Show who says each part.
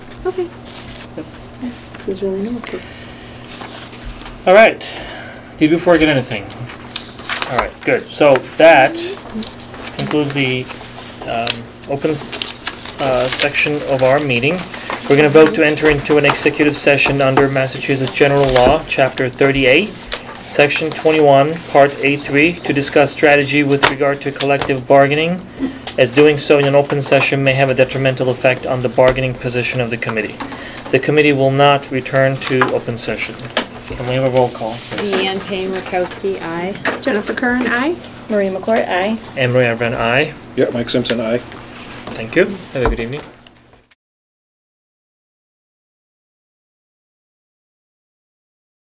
Speaker 1: Okay.
Speaker 2: Yep.
Speaker 1: This is really helpful.
Speaker 2: All right. Do you before I get anything? All right, good. So that concludes the um, open uh, section of our meeting. We're going to vote to enter into an executive session under Massachusetts General Law, Chapter 38, Section 21, Part A3, to discuss strategy with regard to collective bargaining, as doing so in an open session may have a detrimental effect on the bargaining position of the committee. The committee will not return to open session. Can we have a roll call? please?
Speaker 3: Leanne Payne Rakowski, aye.
Speaker 1: Jennifer Curran, aye.
Speaker 4: Marie McCourt, aye.
Speaker 2: Anne Marie Everett, aye.
Speaker 5: Yeah, Mike Simpson, aye.
Speaker 2: Thank you. Have a good evening.